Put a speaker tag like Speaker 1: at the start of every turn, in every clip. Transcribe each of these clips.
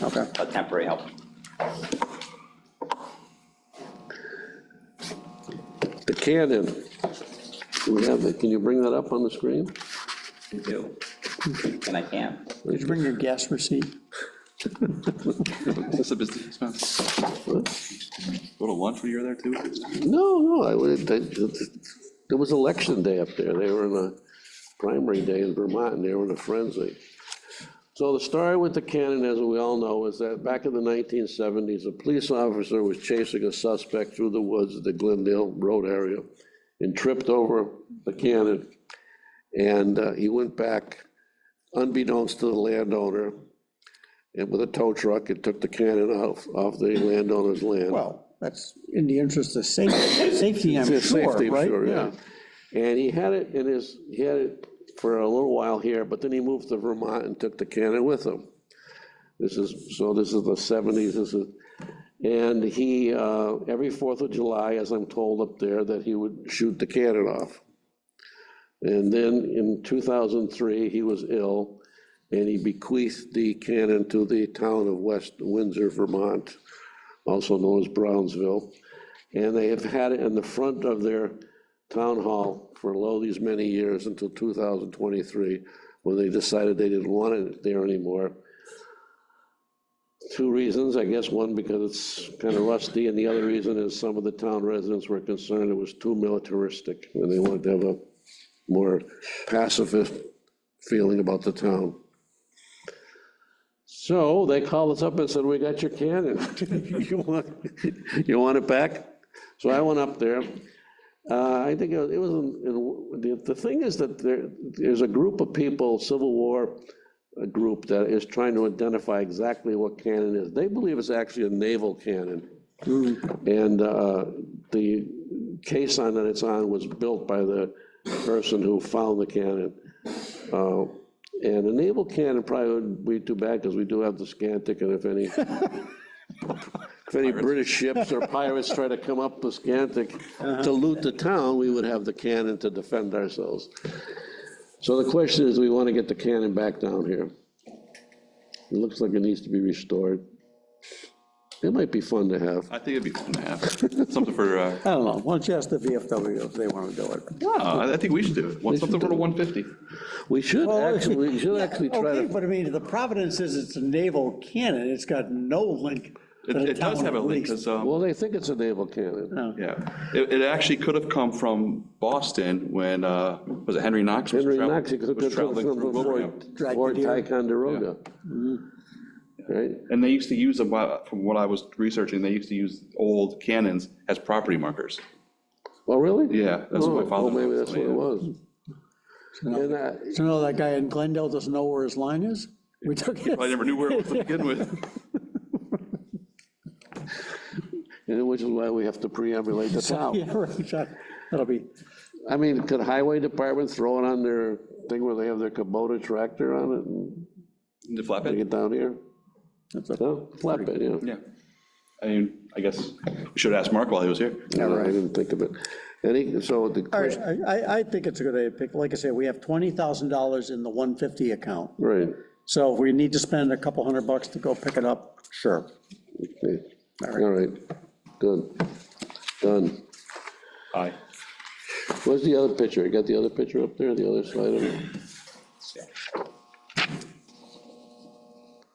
Speaker 1: Okay.
Speaker 2: a temporary help.
Speaker 3: The Cannon, we have, the- can you bring that up on the screen?
Speaker 2: You do. And I can.
Speaker 1: Did you bring your gas receipt?
Speaker 4: That's a business expense. Go to lunch when you're there too?
Speaker 3: No, no, I, would- I- there was election day up there, they were in a primary day in Vermont, and they were in a frenzy. So the story with the cannon, as we all know, is that back in the 1970s, a police officer was chasing a suspect through the woods of the Glendale Road area and tripped over the cannon. And uh, he went back unbeknownst to the landowner, and with a tow truck, it took the cannon off, off the landowner's land.
Speaker 1: Well, that's in the interest of safety, safety, I'm
Speaker 3: It's
Speaker 1: sure,
Speaker 3: safety,
Speaker 1: right?
Speaker 3: sure, yeah. And he had it in his, he had it for a little while here, but then he moved to Vermont and took the cannon with him. This is, so this is the seventies, this is, and he, uh, every Fourth of July, as I'm told up there, that he would shoot the cannon off. And then in two thousand three, he was ill, and he bequeathed the cannon to the town of West Windsor, Vermont, also known as Brownsville. And they have had it in the front of their town hall for lo these many years until 2023, when they decided they didn't want it there anymore. Two reasons, I guess, one because it's kind of rusty, and the other reason is some of the town residents were concerned it was too militaristic, and they wanted to have a more pacifist feeling about the town. So they called us up and said, we got your cannon. You want you want it back? So I went up there. Uh, I think it was- it was, in- in- the, the thing is that there, there's a group of people, Civil War uh, group that is trying to identify exactly what cannon is. They believe it's actually a naval cannon. And uh, the caisson that it's on was built by the person who found the cannon. Uh, And a naval cannon probably wouldn't be too bad, because we do have the Scantic, and if any, if any British ships or pirates try to come up the Scantic
Speaker 1: Uh-huh.
Speaker 3: to loot the town, we would have the cannon to defend ourselves. So the question is, do we want to get the cannon back down here? It looks like it needs to be restored. It might be fun to have.
Speaker 4: I think it'd be fun to have, something for, uh,
Speaker 1: I don't know, why don't you ask the VFW if they want to do it?
Speaker 4: uh, I think we should do it, Want something for the 150.
Speaker 3: We should
Speaker 1: Well,
Speaker 3: actually, we should actually try
Speaker 1: Okay,
Speaker 3: to,
Speaker 1: but I mean, the Providence is, it's a naval cannon, it's got no link to
Speaker 4: It
Speaker 1: the
Speaker 4: it does
Speaker 1: town
Speaker 4: have a
Speaker 1: police.
Speaker 4: link, because, um,
Speaker 3: well, they think it's a naval cannon.
Speaker 1: Oh.
Speaker 4: yeah, it, it actually could have come from Boston when, uh, was it Henry Knox? was
Speaker 3: Henry
Speaker 4: travel-
Speaker 3: Knox, it could
Speaker 4: was
Speaker 3: have come
Speaker 4: traveling
Speaker 3: from
Speaker 4: through Wilbraham.
Speaker 3: Fort,
Speaker 1: Dragged
Speaker 3: Fort
Speaker 1: it here.
Speaker 3: Ticonderoga.
Speaker 1: Mm-hmm.
Speaker 3: Right?
Speaker 4: And they used to use them, uh, from what I was researching, they used to use old cannons as property markers.
Speaker 3: Oh, really?
Speaker 4: Yeah, that's
Speaker 3: Oh,
Speaker 4: what my father.
Speaker 3: Oh, maybe that's what it
Speaker 4: Yeah.
Speaker 3: was. And, uh,
Speaker 1: So no, that guy in Glendale doesn't know where his line is? We took his
Speaker 4: I never knew where it was to begin with.
Speaker 3: and which is why we have to preambulate the town.
Speaker 1: Yeah, right, that- that'll be,
Speaker 3: I mean, could highway department throw it on their thing where they have their Kubota tractor on it and
Speaker 4: The
Speaker 3: bring
Speaker 4: flatbed?
Speaker 3: it down here? No, flatbed, yeah.
Speaker 4: Yeah. I mean, I guess we should ask Mark while he was here.
Speaker 3: Yeah, right. I didn't think of it. Any, so the
Speaker 1: all
Speaker 3: question,
Speaker 1: right, I, I- I think it's a good idea, to pick, like I said, we have $20,000 in the 150 account.
Speaker 3: right,
Speaker 1: So if we need to spend a couple hundred bucks to go pick it up, sure.
Speaker 3: okay. all right, good, done.
Speaker 4: Aye.
Speaker 3: Where's the other picture? You got the other picture up there, the other side of it?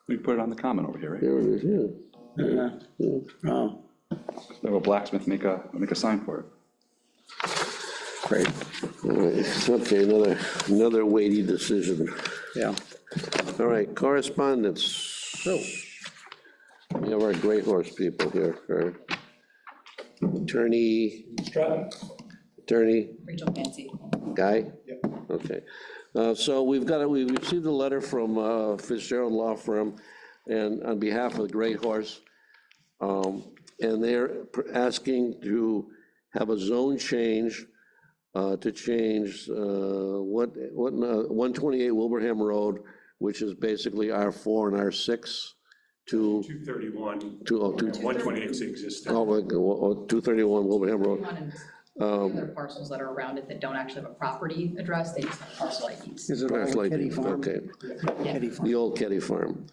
Speaker 4: We can put it on the comment over here, right?
Speaker 3: There it is, yeah.
Speaker 1: Oh,
Speaker 4: Have a blacksmith make a, make a sign for it.
Speaker 1: great,
Speaker 3: All right, okay, another, another weighty decision.
Speaker 1: yeah.
Speaker 3: All right, correspondence.
Speaker 1: So,
Speaker 3: We have our gray horse people here, our attorney,
Speaker 5: Stratton,
Speaker 3: attorney,
Speaker 5: Rachel Fancy.
Speaker 3: guy? Yep. Okay, Uh, so we've got, a- we received a letter from uh, Fitzgerald Law Firm, and on behalf of the Gray Horse, um, and they're pr- asking to have a zone change, uh, to change uh, what, what, uh, 128 Wilbraham Road, which is basically R4 and R6, to,
Speaker 6: 231,
Speaker 3: to, oh, to
Speaker 6: 128 is existing.
Speaker 3: Oh, like, well, oh, 231 Wilbraham Road.
Speaker 5: One of the other parcels that are around it that don't actually have a property address, they just have parcel IDs.
Speaker 1: is it all
Speaker 3: That's
Speaker 1: the
Speaker 3: like,
Speaker 1: kitty farm?
Speaker 3: okay,
Speaker 1: Kitty farm.
Speaker 3: the old Ketty Farm.